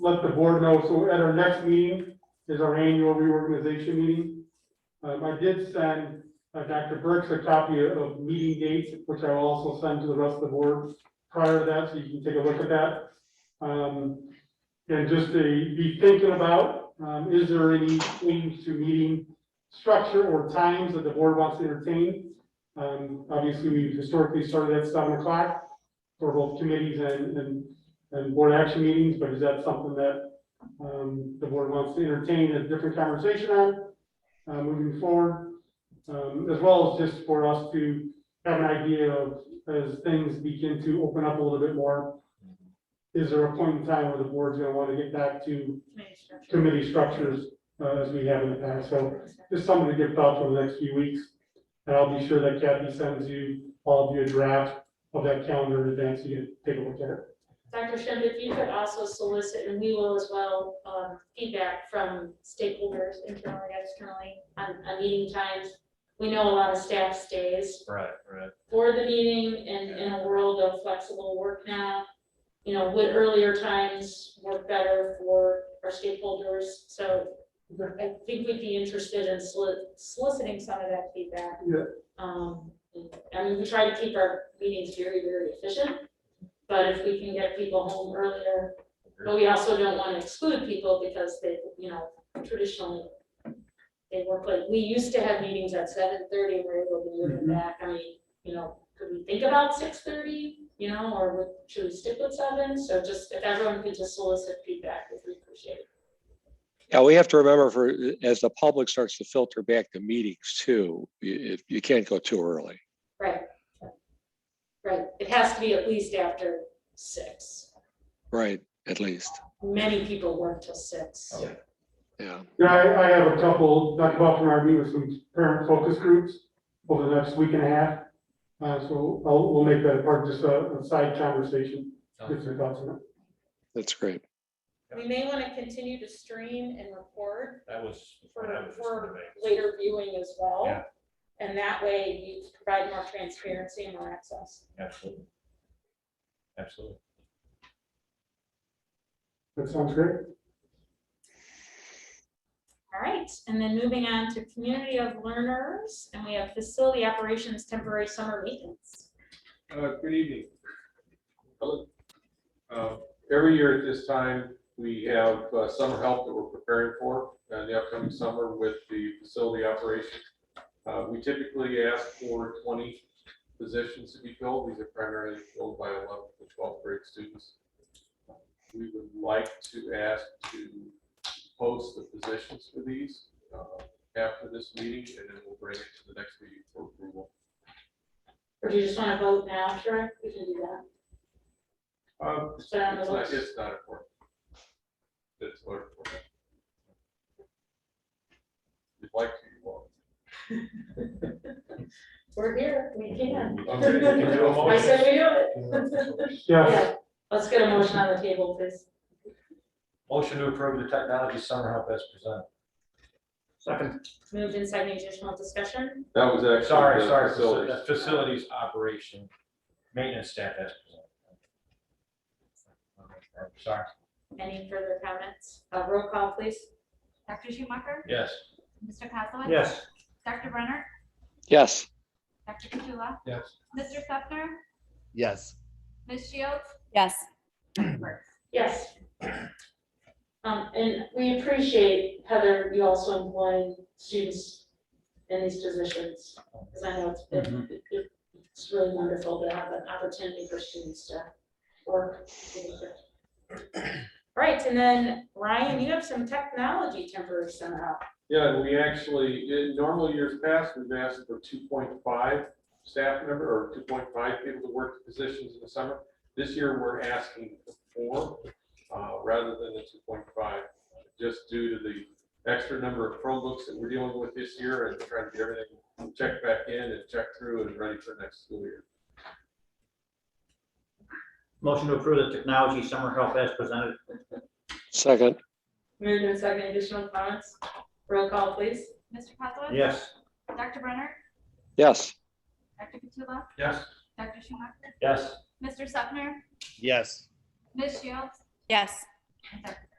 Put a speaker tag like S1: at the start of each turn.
S1: let the board know, so at our next meeting is our annual reorganization meeting. Um, I did send uh, Dr. Burks a copy of meeting dates, which I will also send to the rest of the board prior to that, so you can take a look at that. Um, and just to be thinking about, um, is there any change to meeting structure or times that the board wants to entertain? Um, obviously, we historically started at seven o'clock for both committees and, and, and board action meetings, but is that something that, um, the board wants to entertain a different conversation on, uh, moving forward? Um, as well as just for us to have an idea of, as things begin to open up a little bit more, is there a point in time where the board's gonna want to get back to committee structures, uh, as we have in the past? So just something to give thought to over the next few weeks. And I'll be sure that Kathy sends you, all of you a draft of that calendar in advance, so you can take a look at it.
S2: Dr. Shimp, if you could also solicit, and we will as well, um, feedback from stakeholders internally, externally, on, on meeting times. We know a lot of staff stays
S3: Right, right.
S2: for the meeting and in a world of flexible work now. You know, would earlier times work better for our stakeholders? So I think we'd be interested in soli- soliciting some of that feedback.
S1: Yeah.
S2: Um, I mean, we try to keep our meetings very, very efficient, but if we can get people home earlier, but we also don't want to exclude people because they, you know, traditionally they work late. We used to have meetings at seven thirty, we're able to move it
S1: Mhm.
S2: back. I mean, you know, could we think about six thirty, you know, or would- should we stick with seven? So just, if everyone could just solicit feedback, we'd appreciate it.
S4: Yeah, we have to remember for, as the public starts to filter back the meetings too, you, you can't go too early.
S2: Right. Right, it has to be at least after six.
S4: Right, at least,
S2: Many people work till six.
S3: Oh.
S4: yeah.
S1: Yeah, I, I have a couple, Dr. Buckner, I meet with some parent focus groups over the next week and a half. Uh, so I'll, we'll make that a part, just a, a side conversation, get some thoughts on it.
S4: That's great.
S5: We may want to continue to stream and record
S3: That was.
S5: for,
S3: when I was just in the
S5: for
S3: bank.
S5: later viewing as well.
S3: Yeah.
S5: And that way you provide more transparency and more access.
S3: Absolutely. Absolutely.
S1: That sounds great.
S2: All right, and then moving on to community of learners, and we have facility operations temporary summer maintenance.
S6: Uh, good evening. Hello. Uh, every year at this time, we have uh, summer help that we're preparing for, uh, the upcoming summer with the facility operation. Uh, we typically ask for twenty positions to be filled. These are primarily filled by eleventh to twelfth grade students. We would like to ask to post the positions for these, uh, after this meeting, and then we'll bring it to the next meeting for approval.
S2: Or do you just want to vote now? Sure, we can do that.
S6: Um,
S2: It's
S6: it's
S2: been on the
S6: not,
S2: list.
S6: it's not important. It's not important. You'd like to, you won't.
S2: We're here, we can.
S6: Okay, can you do a
S2: I
S6: motion?
S2: said we do it.
S1: Yes,
S2: Yeah, let's get a motion on the table, please.
S3: Motion to approve the technology summer help as presented.
S2: Moved in second, additional discussion?
S6: That was actually.
S3: Sorry,
S6: the
S3: sorry,
S6: facilities.
S3: faci- facilities operation, maintenance staff as presented. Sorry,
S2: Any further comments? Uh, roll call, please.
S7: Dr. Schumacher?
S3: yes.
S7: Mr. Kozowitz?
S3: Yes.
S7: Dr. Brenner?
S4: Yes,
S7: Dr. Katsula?
S3: Yes.
S7: Mr. Sefner?
S8: Yes.
S7: Ms. Shields?
S9: Yes.
S7: Dr. Burks?
S2: Yes. Um, and we appreciate Heather, you also employing students in these positions, because I know it's been, it- it's really wonderful to have an opportunity for students to work. All right, and then Ryan, you have some technology temporary somehow.
S6: Yeah, and we actually, in normal years past, we've asked for two point five staff member or two point five people to work the positions in the summer. This year, we're asking for four, uh, rather than the two point five, just due to the extra number of Chromebooks that we're dealing with this year and trying to get everything checked back in and checked through and ready for next school year.
S10: Motion to approve the technology summer help as presented.
S4: second,
S2: Moved and second, additional comments? Roll call, please.
S7: Mr. Kozowitz?
S10: Yes.
S7: Dr. Brenner?
S4: yes,
S7: Dr. Katsula?
S3: Yes.
S7: Dr. Schumacher?
S3: Yes.
S7: Mr. Sefner?
S8: Yes.
S7: Ms. Shields?
S9: Yes.
S7: and Dr. Burks.